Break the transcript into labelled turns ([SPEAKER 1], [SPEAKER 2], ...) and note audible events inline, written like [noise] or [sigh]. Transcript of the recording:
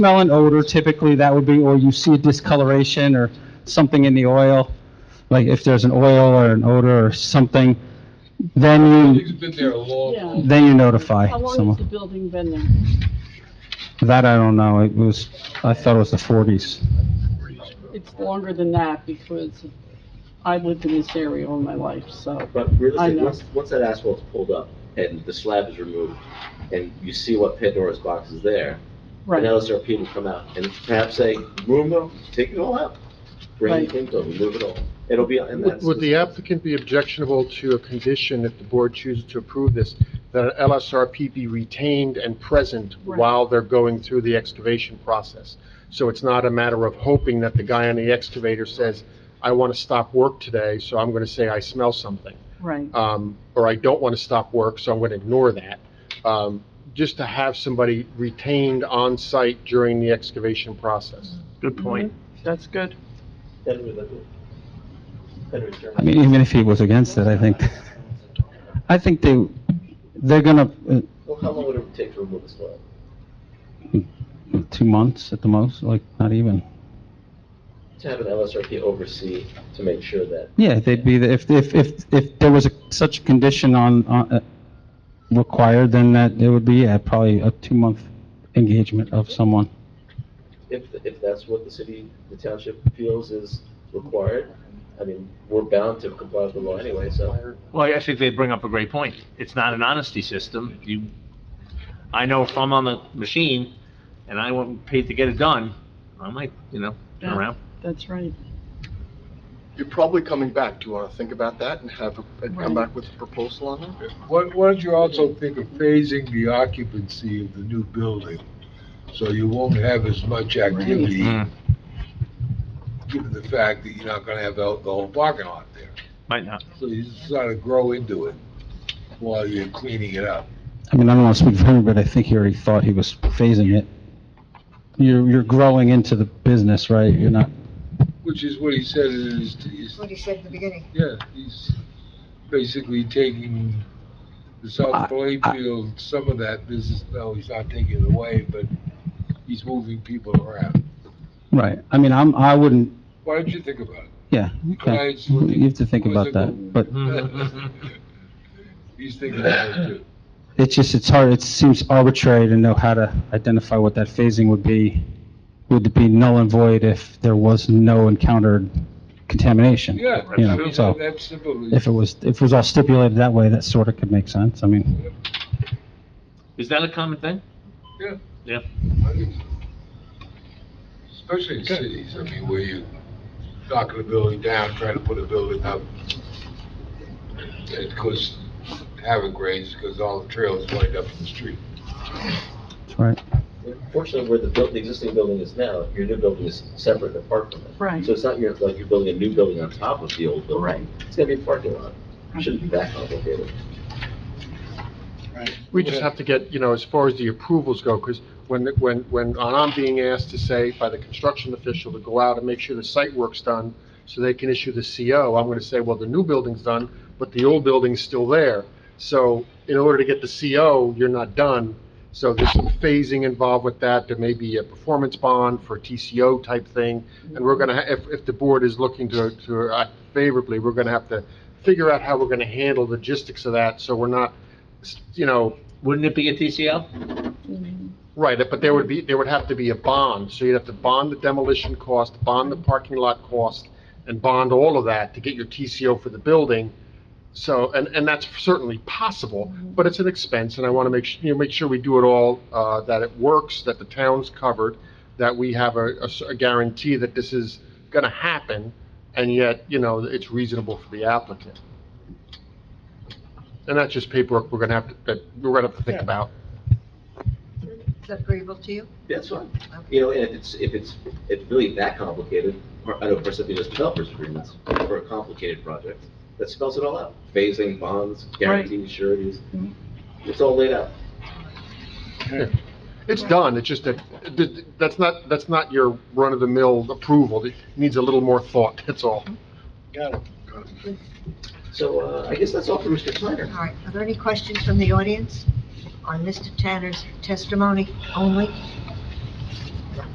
[SPEAKER 1] smell an odor, typically that would be, or you see a discoloration or something in the oil, like if there's an oil or an odor or something, then
[SPEAKER 2] It's
[SPEAKER 1] you,
[SPEAKER 2] been there a long, long.
[SPEAKER 1] then you notify
[SPEAKER 3] How long has the
[SPEAKER 1] someone.
[SPEAKER 3] building been there?
[SPEAKER 1] That I don't know, it was, I thought it was the 40s.
[SPEAKER 3] It's longer than that because I've lived in this area all my life, so.
[SPEAKER 4] But
[SPEAKER 3] I
[SPEAKER 4] realistically,
[SPEAKER 3] know.
[SPEAKER 4] once, once that asphalt's pulled up and the slab is removed, and you see what Pandora's box is there, and
[SPEAKER 3] Right,
[SPEAKER 4] LSRP will come out and perhaps say, remove them, take it all out, bring
[SPEAKER 3] Right.
[SPEAKER 4] it into, remove it all. It'll be, and
[SPEAKER 5] Would
[SPEAKER 4] that's.
[SPEAKER 5] would the applicant be objectionable to a condition if the board chooses to approve this, that an LSRP be retained and present
[SPEAKER 3] Right.
[SPEAKER 5] while they're going through the excavation process? So it's not a matter of hoping that the guy on the excavator says, I want to stop work today, so I'm going to say I smell something.
[SPEAKER 3] right.
[SPEAKER 5] um, or I don't want to stop work, so I'm going to ignore that. Um, Just to have somebody retained on-site during the excavation process.
[SPEAKER 6] Good point.
[SPEAKER 3] Mm-hmm. That's good.
[SPEAKER 1] I mean, even if he was against it, I think, I think they, they're gonna, uh,
[SPEAKER 4] Well, how long would it take to remove the slab?
[SPEAKER 1] two months at the most, like, not even.
[SPEAKER 4] To have an LSRP oversee to make sure that,
[SPEAKER 1] Yeah, they'd be, the- if, if, if, if there was a- such a condition on, on, uh, required, then that, it would be, yeah, probably a two-month engagement of someone.
[SPEAKER 4] if, if that's what the city, the township feels is required, I mean, we're bound to comply with the law anyway, so.
[SPEAKER 6] Well, I think they bring up a great point. It's not an honesty system. You, I know if I'm on the machine and I want paid to get it done, I might, you know, turn around.
[SPEAKER 3] That's right.
[SPEAKER 7] You're probably coming back. Do you want to think about that and have, a- and come
[SPEAKER 3] Right.
[SPEAKER 7] back with a proposal on that?
[SPEAKER 2] Why why don't you also think of phasing the occupancy of the new building? So you won't have as much activity,
[SPEAKER 6] Mm,
[SPEAKER 2] given the fact that you're not gonna have the the whole parking lot there.
[SPEAKER 6] Might not. [laughs]
[SPEAKER 2] So you just gotta grow into it while you're cleaning it up.
[SPEAKER 1] I mean, I don't want to speak for him, but I think he already thought he was phasing it. You're, you're growing into the business, right? You're not,
[SPEAKER 2] Which is what he said in his, his-
[SPEAKER 8] what he said in the beginning.
[SPEAKER 2] yeah, he's basically taking the
[SPEAKER 1] I-
[SPEAKER 2] South Plainfield, some of that business, no, he's not taking it away, but he's moving people around.
[SPEAKER 1] right, I mean, I'm, I wouldn't,
[SPEAKER 2] Why don't you think about
[SPEAKER 1] yeah, okay.
[SPEAKER 2] Guys, look,
[SPEAKER 1] You have to think about that, but
[SPEAKER 2] it? He's thinking about
[SPEAKER 1] [laughs]
[SPEAKER 2] it too.
[SPEAKER 1] it's just, it's hard, it seems arbitrary to know how to identify what that phasing would be. Would it be null and void if there was no encountered contamination?
[SPEAKER 2] Yeah,
[SPEAKER 1] You
[SPEAKER 2] I
[SPEAKER 1] know,
[SPEAKER 2] mean,
[SPEAKER 1] so-
[SPEAKER 2] that's simple.
[SPEAKER 1] If it was, if it was all stipulated that way, that sort of could make sense, I mean,
[SPEAKER 6] Is that a common thing?
[SPEAKER 2] Yeah.
[SPEAKER 6] Yeah.
[SPEAKER 2] Especially in cities, I mean, where you knocking a building down, trying to put a building up. Of course, having grades, because all the trails wind up in the street.
[SPEAKER 1] that's right.
[SPEAKER 4] Fortunately, where the buil- the existing building is now, your new building is separate and apart from it.
[SPEAKER 3] Right.
[SPEAKER 4] So it's not your, like you're building a new building on top of the old building.
[SPEAKER 3] Right.
[SPEAKER 4] It's gonna be a parking lot. Shouldn't be that complicated.
[SPEAKER 5] We just have to get, you know, as far as the approvals go, because when, when, when I'm being asked to say by the construction official to go out and make sure the site work's done, so they can issue the CO, I'm going to say, well, the new building's done, but the old building's still there. So in order to get the CO, you're not done. So there's some phasing involved with that. There may be a performance bond for TCO type thing. And we're going to, if, if the board is looking to, to act favorably, we're going to have to figure out how we're going to handle logistics of that, so we're not, you know,
[SPEAKER 6] Wouldn't it be a TCL?
[SPEAKER 5] Right, but there would be, there would have to be a bond, so you'd have to bond the demolition cost, bond the parking lot cost, and bond all of that to get your TCO for the building. So, and, and that's certainly possible, but it's an expense, and I want to make, su- you know, make sure we do it all, uh, that it works, that the town's covered, that we have a, a s- a guarantee that this is going to happen, and yet, you know, it's reasonable for the applicant. And that's just paperwork we're going to have to, that we're going to have to think about.
[SPEAKER 8] Is that agreeable to you?
[SPEAKER 4] That's fine. You know, and if it's, if it's, if it's really that complicated, or- I know for something that's developers agreements, for a complicated project, that spells it all out. Phasing, bonds, guarantees, sureties,
[SPEAKER 3] Mm-hmm.
[SPEAKER 4] it's all laid out.
[SPEAKER 5] It's done, it's just that, that- that's not, that's not your run-of-the-mill approval, it needs a little more thought, that's all.
[SPEAKER 4] So, uh, I guess that's all for Mr. Planner.
[SPEAKER 8] All right, are there any questions from the audience on Mr. Tanner's testimony only?